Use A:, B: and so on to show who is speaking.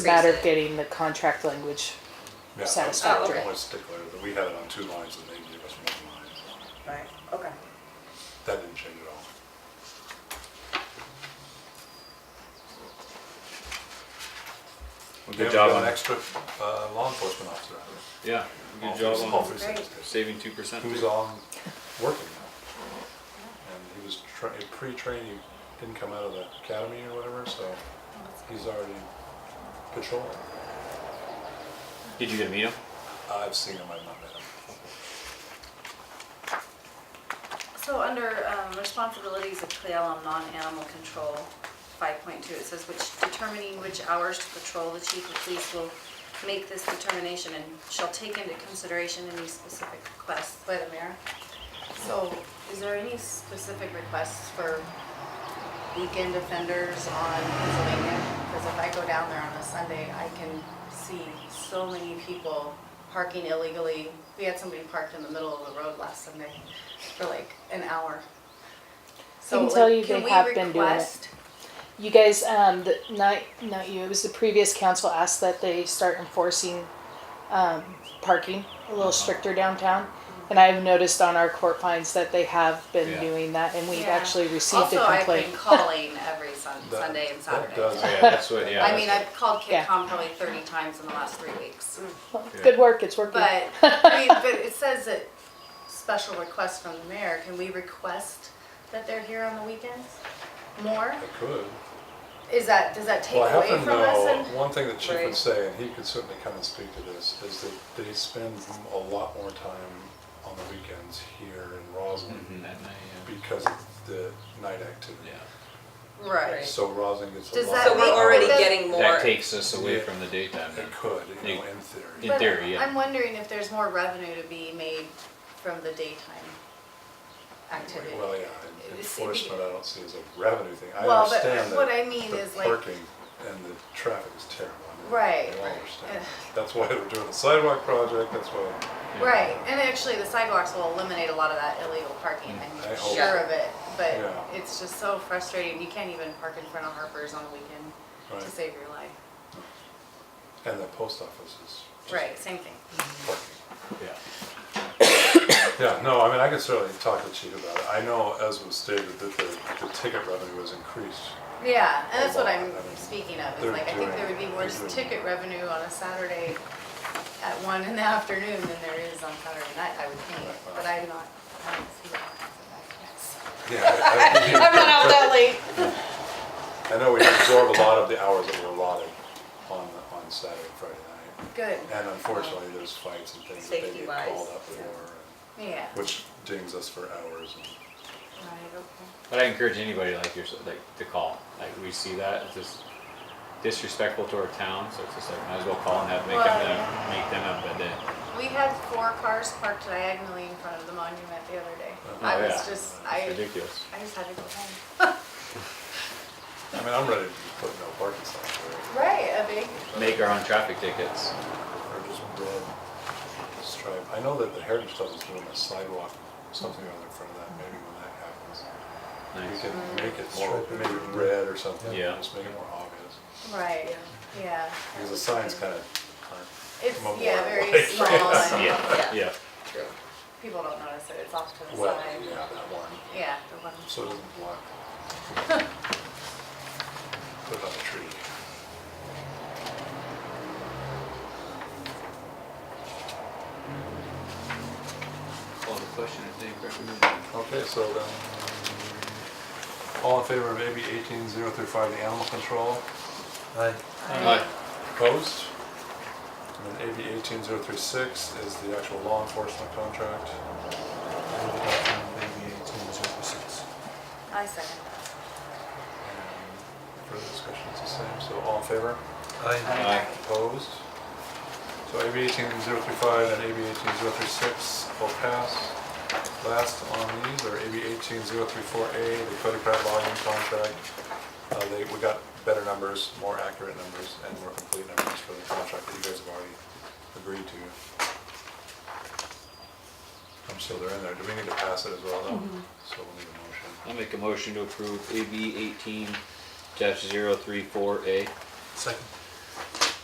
A: It's a matter of getting the contract language
B: Yeah, I-
A: Satisfactory.
C: Oh,
B: I'm always stickler, that we had it on two lines and they gave us one line.
C: Right, okay.
B: That didn't change at all.
D: Well,
B: Yeah,
D: Good
B: we
D: job
B: got
D: on
B: an
D: that.
B: extra uh, law enforcement officer. out there.
D: Yeah,
B: All
D: good job
B: three-
D: on
B: all three
C: Great.
B: sentences.
D: saving two percent.
B: Who's on working now. And he was tra- pre-trained, he didn't come out of the academy or whatever, so he's already patrolling.
D: Did you get to meet him?
B: I've seen him, I've not met him.
C: So under um, responsibilities of CLEAL on non-animal control, 5.2, it says which determining which hours to patrol, the chief of police will make this determination and shall take into consideration any specific requests by the mayor.
E: So is there any specific requests for weekend offenders on Pennsylvania? Because if I go down there on a Sunday, I can see so many people parking illegally. We had somebody parked in the middle of the road last Sunday for like an hour. So
A: can tell
E: like,
A: you
E: can
A: they
E: we
A: have been doing it.
E: request-
A: You guys, um, the, not, not you, it was the previous council asked that they start enforcing, um, parking a little stricter downtown. And I've noticed on our court fines that they have been
D: Yeah.
A: doing that and we've
C: Yeah.
A: actually received
C: Also,
A: a
C: I've
A: complaint.
C: been calling every Sun-
B: That-
C: Sunday and
B: That
C: Saturday.
B: does.
D: Yeah, that's what, yeah.
C: I mean, I've called
A: Yeah.
C: KidCom probably 30 times in the last three weeks.
A: Good work, it's working.
E: But, I mean, but it says that special request from the mayor, can we request that they're here on the weekends more?
B: I could.
E: Is that, does that take
B: Well, I
E: away
B: happen to
E: from us?
B: know,
E: and-
B: one thing that Chief would
C: Right.
B: say, and he could certainly come and speak to this, is that they spend a lot more time on the weekends here in Roslyn
D: That night,
B: because of the night activity.
D: yeah.
E: Right.
B: So Roslyn gets a
E: Does
B: lot.
E: that
F: So
B: more
F: we're already
B: hours.
F: getting
D: Yeah.
F: more.
D: That takes us away
B: Yeah.
D: from the daytime. then.
B: It could, you know, in
D: Yeah.
B: theory.
E: But
D: theory, yeah.
E: I'm wondering if there's more revenue to be made from the daytime activity.
B: Well, yeah,
E: It's-
B: and enforcement I don't see as a revenue thing. I
E: Well, but
B: understand that.
E: what I mean
B: the
E: is like-
B: Parking and the traffic is terrible. I mean,
E: Right,
B: I
E: right.
B: understand. That's why they're doing the sidewalk project, that's why.
E: Right, and actually the sidewalks will eliminate a lot of that illegal parking,
B: Mm, I
E: I'm
B: hope.
E: sure of it, but
B: Yeah.
E: it's just so frustrating, you can't even park in front of Harper's on the weekend
B: Right.
E: to save your life.
B: And the post office is
E: Right, same thing.
B: parking.
D: Yeah.
B: Yeah, no, I mean, I could certainly talk to the Chief about it. I know, as was stated, that the, the ticket revenue was increased.
E: Yeah, and that's what
B: Well,
E: I'm
B: I mean,
E: speaking of,
B: they're
E: is like, I think there would be
B: doing-
E: more
B: they're doing-
E: ticket revenue on a Saturday at one in the afternoon than there is on Saturday night, I would think, but I'm not, I don't see that.
B: Yeah. I-
E: I'm not out that late.
B: I- I know we absorb a lot of the hours that were allotted on, the- on Saturday, and Friday night.
E: Good,
B: And unfortunately, there's fights and things that they get
F: Safety-wise,
B: called up for,
F: yeah.
B: and-
E: yeah.
B: which dings us for hours. and-
E: Right, okay.
D: But I encourage anybody like yourself, like to call. Like we see that it's just disrespectful to our town, so it's just like might as well call and have make
E: Well,
D: them have- make them have a day.
E: We had four cars parked diagonally in front of the monument the other day.
B: Oh,
E: I
D: yeah.
E: was just,
D: It's
E: I,
D: ridiculous.
E: I just had to go home.
B: I mean, I'm ready to put no parking signs there,
E: Right, a big,
D: Make our own traffic tickets.
B: or just red stripe. I know that the Heritage Club is doing a sidewalk, something or other in front of that, maybe when that happens. We
D: Nice.
B: could
E: Mm.
B: make it more, maybe red or something,
D: Yeah.
B: just make it more obvious.
E: right, yeah.
B: Because the signs kind of
E: It's,
B: mobile,
E: yeah, very
B: like,
E: small
B: yes.
E: and
D: Yeah, yeah.
F: True.
E: people don't notice it, it's off to the
B: well,
E: side.
B: yeah, that one,
E: Yeah, the one.
B: so it doesn't block. Put it on a tree.
D: Call the question, I think,
B: Okay, so then, all in favor of AB eighteen zero through five, the animal control, opposed? And then AB eighteen zero three six is the actual law enforcement contract.
E: I second that.
B: And Further discussion is the same, so all in favor?
D: Aye.
B: Opposed? So AB eighteen zero three five and AB eighteen zero three six will pass. Last on these are AB eighteen zero three four A, the Cody Pratt volume contract. Uh, they, we got better numbers, more accurate numbers, and more complete numbers for the contract that you guys have already agreed to. I'm sure they're in there. Do we need to pass it as well though? So we'll need a motion.
D: I'll make a motion to approve AB eighteen dash zero three four A.
G: Second.